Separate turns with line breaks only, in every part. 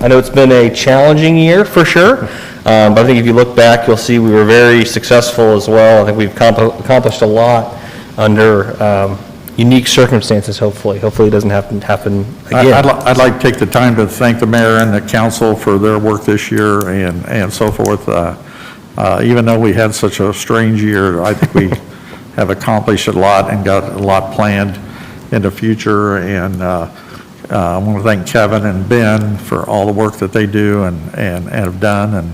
I know it's been a challenging year, for sure, Um, but I think if you look back, you'll see we were very successful as well. I think we've accompli- accomplished a lot under um, unique circumstances, hopefully. Hopefully it doesn't happen, happen
I- I'd li-
again.
I'd like to take the time to thank the mayor and the council for their work this year and, and so forth. Uh, uh, Even though we had such a strange year, I think we have accomplished a lot and got a lot planned in the future. And uh, uh, I want to thank Kevin and Ben for all the work that they do and, and and have done. And,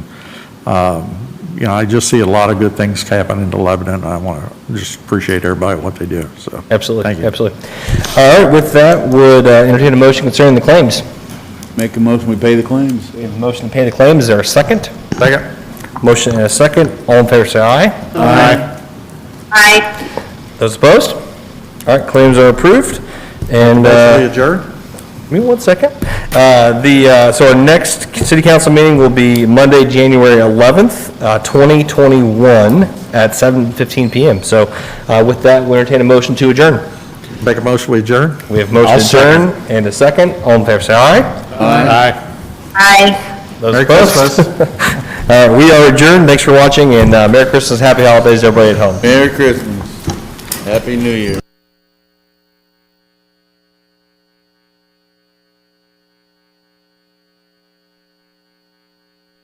um, you know, I just see a lot of good things happening in Lebanon. I want to just appreciate everybody, what they do, so. Thank
Absolutely,
you.
absolutely. All right, with that, would uh, entertain a motion concerning the claims.
Make a motion, we pay the claims.
We have a motion to pay the claims. Is there a second?
Second.
Motion and a second. All in favor, say aye.
Aye.
Those opposed? All right, claims are approved. And,
Motion
uh,
to adjourn?
give me one second. Uh, The, uh, so our next city council meeting will be Monday, January 11th, uh, 2021, at 7:15 PM. So uh, with that, we entertain a motion to adjourn.
Make a motion, we adjourn?
We have motion to
second.
adjourn and a second. All in favor, say aye.
Aye.
Aye.
Those
Merry
opposed?
Christmas.
All right, we are adjourned. uh, Thanks for watching, and uh, Merry Christmas, Happy Holidays, everybody at home.
Merry Christmas. Happy New Year.